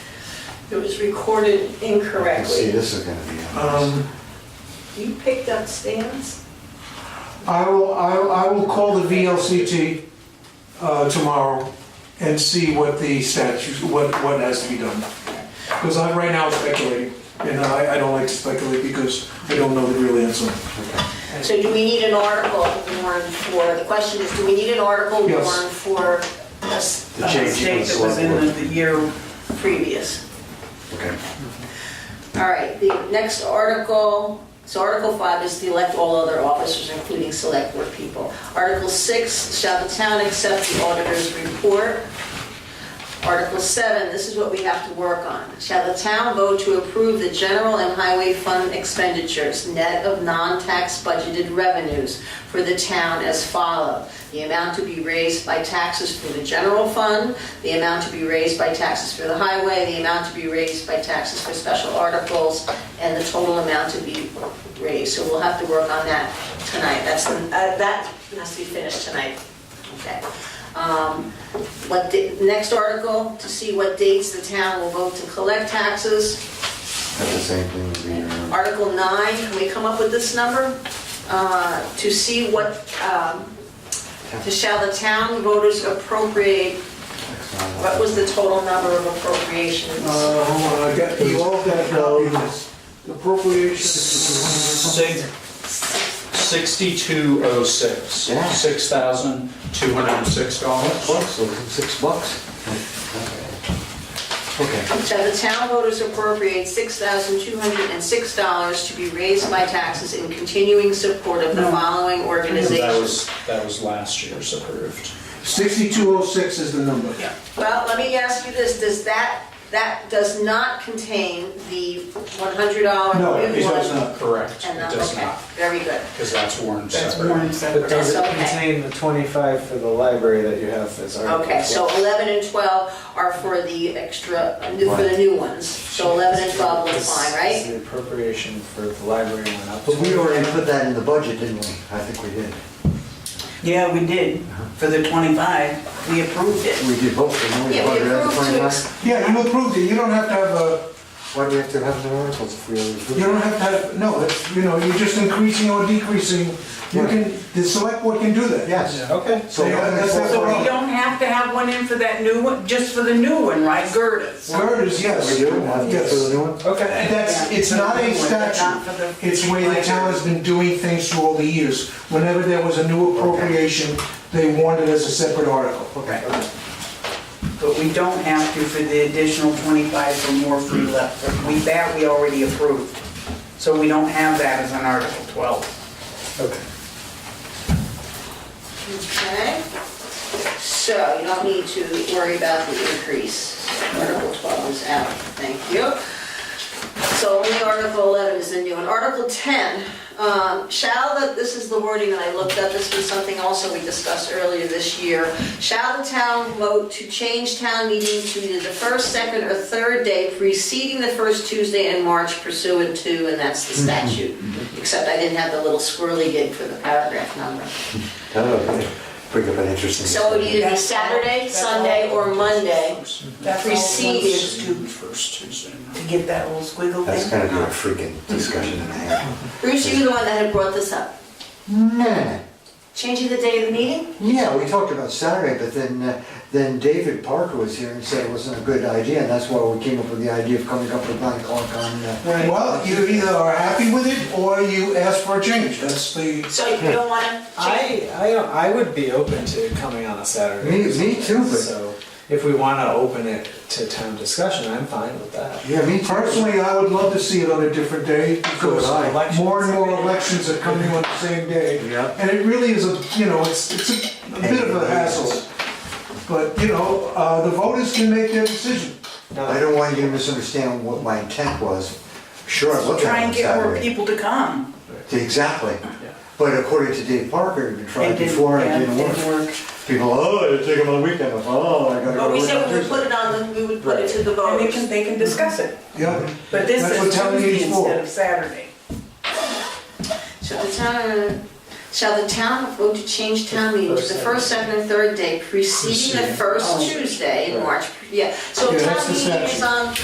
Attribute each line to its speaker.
Speaker 1: It was recorded
Speaker 2: can see
Speaker 1: incorrectly.
Speaker 2: this is gonna be on
Speaker 3: Um,
Speaker 1: You picked up stands?
Speaker 3: I will, I will- I will call the VLCT uh, tomorrow and see what the statute, what, what has to be done. Because I'm right now speculating, and I, I don't like to speculate because I don't know the real answer.
Speaker 4: So do we need an article warrant for, the question is, do we need an article
Speaker 3: Yes.
Speaker 4: warrant for a s-
Speaker 2: The
Speaker 4: a
Speaker 2: change in
Speaker 4: state
Speaker 2: the
Speaker 4: that
Speaker 2: select
Speaker 4: was in
Speaker 2: board.
Speaker 4: the the year previous?
Speaker 2: this. Okay.
Speaker 4: All right, the next article, so Article 5 is to elect all other officers, including select board people. Article 6, shall the town accept the auditor's report? Article 7, this is what we have to work on. Shall the town vote to approve the general and highway fund expenditures, net of non-tax budgeted revenues for the town as follow? The amount to be raised by taxes for the general fund, the amount to be raised by taxes for the highway, the amount to be raised by taxes for special articles, and the total amount to be raised. So we'll have to work on that tonight. That's, the- uh, that has to be finished tonight. Okay. Um, What, the- next article, to see what dates the town will vote to collect taxes.
Speaker 2: That's the same thing as the uh, year. round.
Speaker 4: Article 9, can we come up with this number? Uh, To see what, um, to shall the town voters appropriate, what was the total number of appropriations?
Speaker 3: Uh, hold on, I got, you all got those appropriations.
Speaker 5: Six- 6206,
Speaker 2: Yeah.
Speaker 5: $6,206.
Speaker 2: Bucks, so it's six bucks. Okay,
Speaker 4: Shall the town voters appropriate $6,206 to be raised by taxes in continuing support of the following
Speaker 5: That
Speaker 4: organizations?
Speaker 5: was, that was last year's approved.
Speaker 3: 6206 is the number.
Speaker 4: Well, let me ask you this, does that, that does not contain the $100?
Speaker 3: No, it
Speaker 4: reward?
Speaker 3: does not.
Speaker 5: Correct, it
Speaker 4: And, uh,
Speaker 5: does
Speaker 4: okay,
Speaker 5: not,
Speaker 4: very good.
Speaker 5: because that's warned
Speaker 6: That's
Speaker 5: separate.
Speaker 6: warned
Speaker 7: But
Speaker 6: separate.
Speaker 7: does it
Speaker 4: Okay.
Speaker 7: contain the 25 for the library that you have as article?
Speaker 4: Okay, so 11 and 12 are for the extra, for the new ones. So 11 and 12 will apply,
Speaker 7: This is
Speaker 4: right?
Speaker 7: The appropriation for the library went up.
Speaker 2: but we already put that in the budget, didn't we? I think we did.
Speaker 6: Yeah, we did, for the 25, we approved it.
Speaker 2: We did both, didn't we?
Speaker 4: Yeah, we
Speaker 2: Budget and
Speaker 4: approved to
Speaker 2: 29.
Speaker 4: ex-
Speaker 3: Yeah, you approved it, you don't have to have a,
Speaker 2: Why do we have to have the articles if we already
Speaker 3: you
Speaker 2: do
Speaker 3: don't
Speaker 2: it?
Speaker 3: have to have, no, it's, you know, you're just increasing or decreasing. You can, the select board can do that.
Speaker 2: Yes.
Speaker 7: Okay.
Speaker 2: So uh,
Speaker 3: Yeah,
Speaker 2: eleven
Speaker 3: that's-
Speaker 2: and
Speaker 3: that's
Speaker 6: So
Speaker 2: twelve.
Speaker 6: we don't have to have one in for that new one, just for the new one, right, Gerdas?
Speaker 3: Girders, yes.
Speaker 2: We do, have to
Speaker 3: Yes.
Speaker 2: do the new one?
Speaker 7: Okay.
Speaker 3: That's, it's not a statute, it's the way the town has been doing things through all the years. Whenever there was a new appropriation, they wanted it as a separate article.
Speaker 2: Okay.
Speaker 6: But we don't have to for the additional 25 for more free left. We, that we already approved. So we don't have that as an Article 12.
Speaker 7: Okay.
Speaker 4: Okay. So you don't need to worry about the increase. Article 12 is out, thank you. So only Article 11 is the new one. Article 10, um, shall the, this is the wording that I looked up, this was something also we discussed earlier this year. Shall the town vote to change town meeting to either the first, second, or third day preceding the first Tuesday in March pursuant to, and that's the statute. Except I didn't have the little squirrely gig for the paragraph number.
Speaker 2: That'll Oh, bring up an interesting.
Speaker 4: So it would
Speaker 2: discussion.
Speaker 4: either be Saturday, Sunday, or Monday.
Speaker 6: That's all
Speaker 4: Preceded.
Speaker 6: one student
Speaker 5: First Tuesday.
Speaker 6: To get that little squiggle
Speaker 2: That's
Speaker 6: thing?
Speaker 2: gonna be a freaking discussion in a half.
Speaker 4: Bruce, you were the one that had brought this up.
Speaker 2: Nah.
Speaker 4: Changing the day of the meeting?
Speaker 2: Yeah, we talked about Saturday, but then, uh, then David Parker was here and said it wasn't a good idea, and that's why we came up with the idea of coming up with nine o'clock on, uh,
Speaker 6: Right.
Speaker 3: Well, you either are happy with it or you ask for a change. That's the,
Speaker 4: So you don't want to change?
Speaker 7: I, I, don't- I would be open to coming on a Saturday.
Speaker 2: Me- me too, but-
Speaker 7: So if we want to open it to town discussion, I'm fine with that.
Speaker 2: yeah, me personally.
Speaker 3: personally, I would love to see it on a different day because
Speaker 2: So would I.
Speaker 3: more and more elections are coming on the same day.
Speaker 2: Yeah.
Speaker 3: And it really is a, you know, it's, it's a a bit of a hassle. But, you know, uh, the voters can make their decision.
Speaker 7: No,
Speaker 2: I don't want you to misunderstand what my intent was. Sure, I looked at it on
Speaker 6: Try and get more
Speaker 2: Saturday.
Speaker 6: people to come.
Speaker 2: Exactly. But according to Dave Parker, we've been trying
Speaker 6: It didn't-
Speaker 2: before, and
Speaker 6: yeah,
Speaker 2: it didn't work. People, oh, it'll take them on the weekend, I'm, oh, I gotta go to work.
Speaker 4: But we said
Speaker 2: on
Speaker 4: we would
Speaker 2: Tuesday."
Speaker 4: put it on, the- we would put it to the
Speaker 6: And they can,
Speaker 4: voters.
Speaker 6: they can discuss it.
Speaker 3: Yeah.
Speaker 6: But this
Speaker 3: That's what
Speaker 6: is
Speaker 3: town meeting's
Speaker 6: Tuesday
Speaker 3: for.
Speaker 6: instead of Saturday.
Speaker 4: Shall the town, uh, shall the town vote to change town meeting to the first, second, and third day preceding the
Speaker 7: Preceding.
Speaker 4: first Tuesday in March? Yeah, so
Speaker 3: Yeah,
Speaker 4: if town
Speaker 3: that's the
Speaker 4: meeting is
Speaker 3: statute.
Speaker 4: on